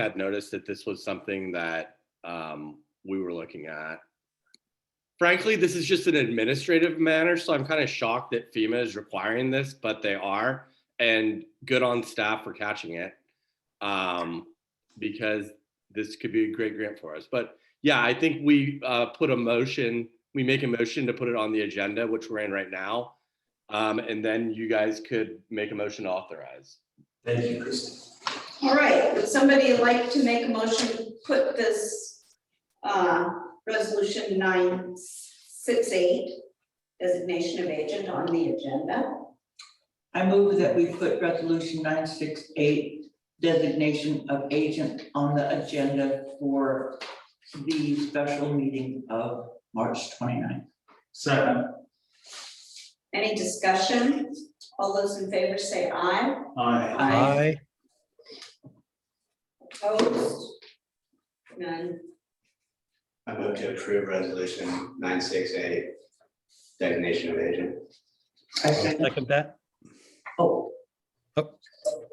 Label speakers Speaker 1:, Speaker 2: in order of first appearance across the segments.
Speaker 1: had noticed that this was something that um, we were looking at. Frankly, this is just an administrative matter, so I'm kind of shocked that FEMA is requiring this, but they are. And good on staff for catching it. Um, because this could be a great grant for us. But yeah, I think we uh, put a motion, we make a motion to put it on the agenda, which we're in right now. Um, and then you guys could make a motion to authorize.
Speaker 2: Thank you, Kristen.
Speaker 3: All right, would somebody like to make a motion, to put this, uh, resolution nine six eight, designation of agent on the agenda?
Speaker 4: I move that we put resolution nine six eight designation of agent on the agenda for the special meeting of March 29th.
Speaker 2: Second,
Speaker 3: Any discussion? All those in favor say aye.
Speaker 2: aye.
Speaker 5: Aye.
Speaker 3: Opposed? None.
Speaker 6: I move to approve resolution nine six eight, designation of agent.
Speaker 4: I second,
Speaker 5: Second that.
Speaker 4: oh,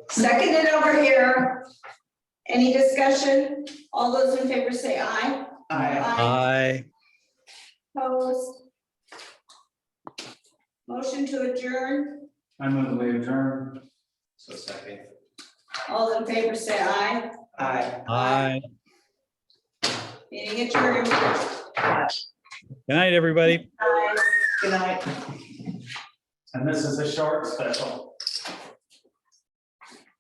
Speaker 3: Seconded over here. Any discussion? All those in favor say aye.
Speaker 4: I,
Speaker 5: Aye.
Speaker 3: Opposed? Motion to adjourn.
Speaker 2: I move we adjourn.
Speaker 6: So second.
Speaker 3: All in favor say aye.
Speaker 4: I.
Speaker 5: Aye.
Speaker 3: Meeting adjourned.
Speaker 5: Good night, everybody.
Speaker 3: Aye.
Speaker 4: Good night.
Speaker 2: And this is a short special.